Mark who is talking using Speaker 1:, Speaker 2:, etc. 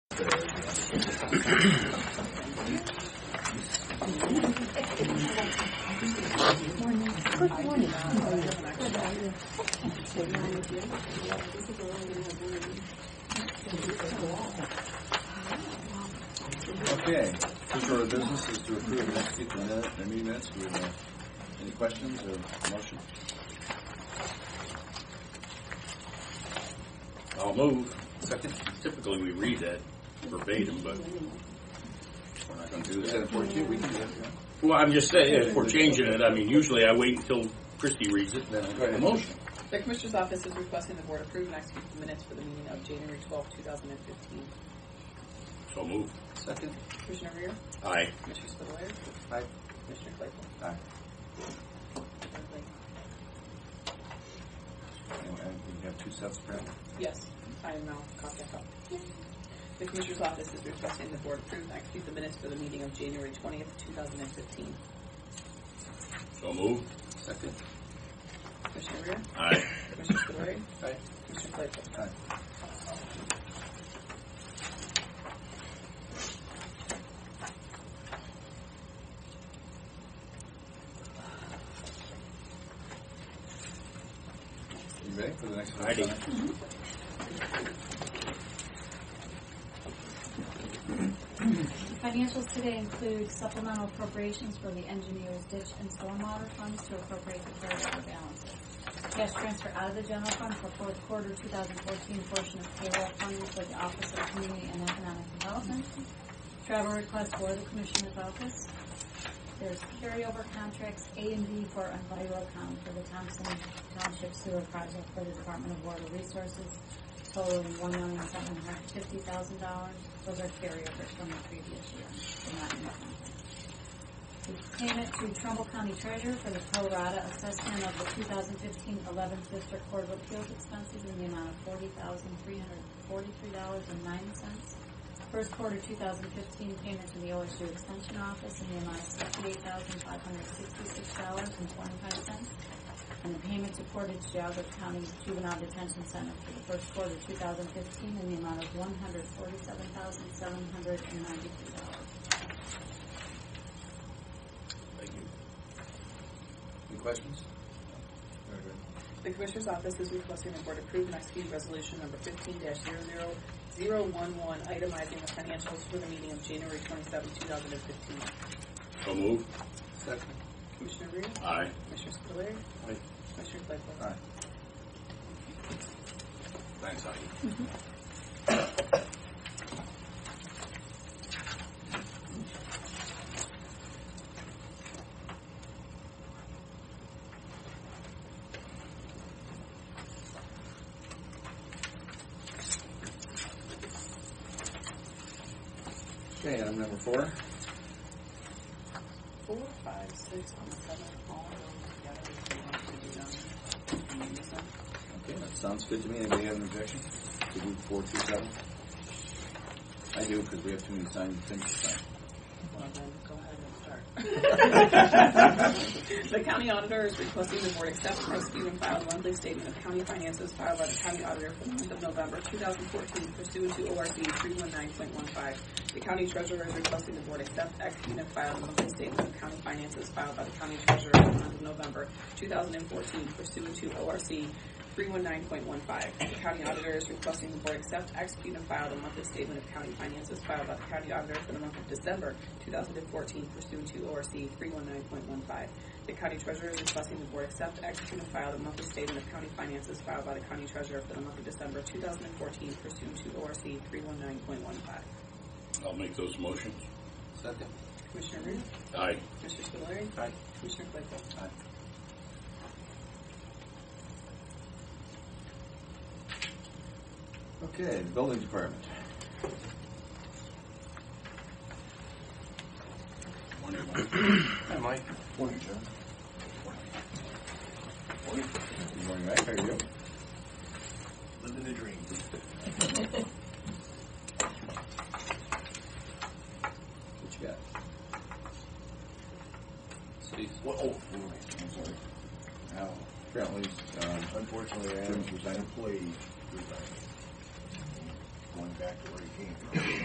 Speaker 1: Okay, first order of business is to approve and execute the minute, the meeting minutes. Do we have uh, any questions or motion?
Speaker 2: I'll move. Second. Typically, we read that verbatim, but we're not going to do
Speaker 1: Is that
Speaker 2: that.
Speaker 1: important to you? We can do that. yeah.
Speaker 2: Well, I'm just saying, if we're changing it, I mean, usually I wait until Christie reads it, then I make a motion.
Speaker 3: The Commissioner's Office is requesting the Board approve and execute the minutes for the meeting of January twelfth, two 2015.
Speaker 2: So move.
Speaker 1: Second?
Speaker 3: Commissioner Rea?
Speaker 2: Aye.
Speaker 3: Commissioner Spudler?
Speaker 1: Aye.
Speaker 3: Commissioner Claypool?
Speaker 1: Aye.
Speaker 3: Everybody?
Speaker 1: Anyway, we have two sets, apparently.
Speaker 3: Yes, I am now copy up. The Commissioner's Office is requesting the Board approve and execute the minutes for the meeting of January twentieth, two 2015.
Speaker 2: So move.
Speaker 1: Second?
Speaker 3: Commissioner Rea?
Speaker 2: Aye.
Speaker 3: Commissioner Spudler?
Speaker 1: Aye.
Speaker 3: Commissioner Claypool?
Speaker 1: Aye. You ready for the next one?
Speaker 2: Ready.
Speaker 4: Financials today include supplemental appropriations for the engineers' ditch and stormwater funds to appropriate the carryover balances. Cash transfer out of the general fund for fourth quarter 2014 portion of payroll funded for the Office of Community and Economic Development. Travel request for the Commissioner's Office. There's carryover contracts A and B for Enviro account for the Thompson Township Sewer Project for the Department of Water Resources totaling one million seven hundred fifty thousand dollars. Those are carryovers from the previous year. They're not new. The Payment to Trumbull County Treasurer for the pro rata assessment of the 2015-11 District Court of Appeals expenses in the amount of $40,343.09. First quarter 2015 payment to the OSU Extension Office in the amount of $68,566.25. And the payment to Portage Geogga County Juvenile Detention Center for the first quarter 2015 in the amount of $147,792.
Speaker 2: Thank you.
Speaker 1: Any questions? Very good.
Speaker 3: The Commissioner's Office is requesting the Board approve and execute Resolution Number fifteen 00011 itemizing the financials for the meeting of January twenty seventh, two 2015.
Speaker 2: So move.
Speaker 1: Second?
Speaker 3: Commissioner Rea?
Speaker 2: Aye.
Speaker 3: Commissioner Spudler?
Speaker 1: Aye.
Speaker 3: Commissioner Claypool?
Speaker 1: Aye.
Speaker 2: Thanks, Heidi.
Speaker 1: Okay, item number four.
Speaker 3: Four, five, six, and seven, all of those together, if you want to do them in unison.
Speaker 1: Okay, that sounds good to me. Anybody have an objection to move four two seven? I do, because we have too many signed things to sign.
Speaker 3: Well, then, go ahead and start. The county auditor is requesting the board accept, prosecute, and file a monthly statement of county finances filed by the county auditor for the month of November 2014 pursuant to ORC 319.15. The county treasurer is requesting the board accept, execute, and file a monthly statement of county finances filed by the county treasurer for the month of November 2014 pursuant to ORC 319.15. The county auditor is requesting the board accept, execute, and file the monthly statement of county finances filed by the county auditor for the month of December 2014 pursuant to ORC 319.15. The county treasurer is requesting the board accept, execute, and file the monthly statement of county finances filed by the county treasurer for the month of December 2014 pursuant to ORC 319.15.
Speaker 2: I'll make those motions.
Speaker 1: Second?
Speaker 3: Commissioner Rea?
Speaker 2: Aye.
Speaker 3: Commissioner Spudler?
Speaker 1: Aye.
Speaker 3: Commissioner Claypool?
Speaker 1: Aye. Okay, the building department.
Speaker 2: Morning, Mike.
Speaker 1: Hi, Mike. Morning, John. Morning. Good morning, Mike. How are you?
Speaker 5: Living the dream.
Speaker 1: What you got?
Speaker 5: Cities. Well, oh, I'm sorry.
Speaker 1: Now, apparently, um,
Speaker 5: Unfortunately, Adams was an employee, resigned. Going back to where he came from.